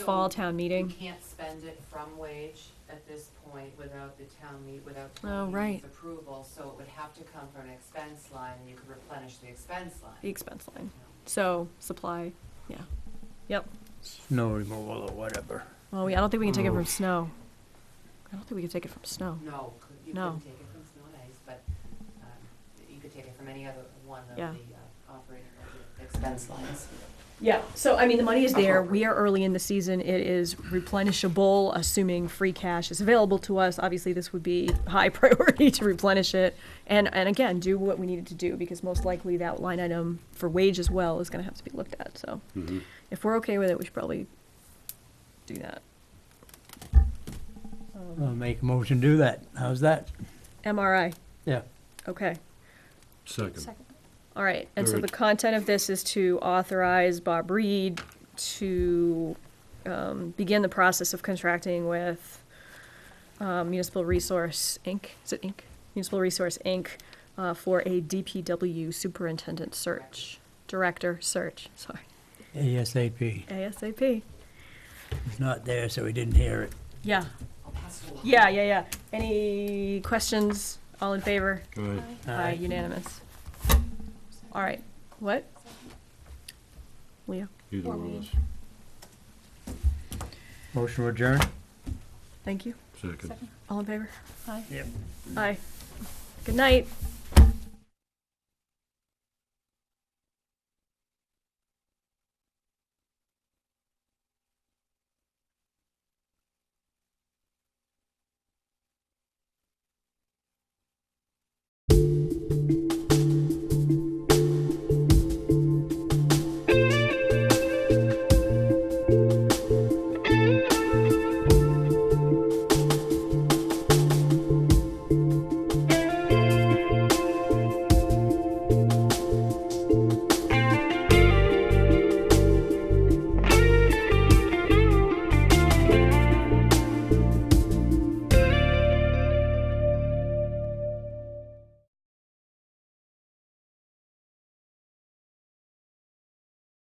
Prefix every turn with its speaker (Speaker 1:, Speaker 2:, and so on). Speaker 1: fall town
Speaker 2: You
Speaker 1: meeting.
Speaker 2: can't spend it from wage at this point without the town meet, without
Speaker 1: Oh,
Speaker 2: town
Speaker 1: right.
Speaker 2: meeting's approval, so it would have to come from an expense line, and you could replenish the expense
Speaker 1: The
Speaker 2: line.
Speaker 1: expense line. So supply, yeah. Yep.
Speaker 3: snow removal or whatever.
Speaker 1: Well, we, I don't think we can take it from snow. I don't think we can take it from snow.
Speaker 2: No, could- you
Speaker 1: Oh. No.
Speaker 2: couldn't take it from snow and ice, but, um, you could take it from any other one of the
Speaker 1: Yeah.
Speaker 2: uh, operating budget expense lines.
Speaker 1: Yeah, so I mean, the money is there. We are early in the season. It is replenishable, assuming free cash is available to us. Obviously, this would be high priority to replenish it. And, and again, do what we needed to do because most likely that line item for wage as well is gonna have to be looked at, so.
Speaker 4: Mm-hmm.
Speaker 1: If we're okay with it, we should probably do that.
Speaker 3: I'll make a motion to do that. How's that?
Speaker 1: MRI,
Speaker 3: Yeah.
Speaker 1: okay.
Speaker 4: Second.
Speaker 1: All right, and so
Speaker 4: Third.
Speaker 1: the content of this is to authorize Bob Reed to um, begin the process of contracting with um, Municipal Resource Inc., is it Inc.? Municipal Resource Inc. uh, for a DPW superintendent search, director search, sorry,
Speaker 3: ASAP.
Speaker 1: ASAP.
Speaker 3: It's not there, so we didn't hear it.
Speaker 1: Yeah,
Speaker 2: I'll pass it along.
Speaker 1: yeah, yeah, yeah. Any questions? All in favor? Aye, unanimous. All right, what? Leah,
Speaker 4: Either one of us.
Speaker 3: Motion adjourned?
Speaker 1: thank you.
Speaker 4: Second.
Speaker 1: All in favor? Aye.
Speaker 3: Yep.
Speaker 1: Aye. Good night.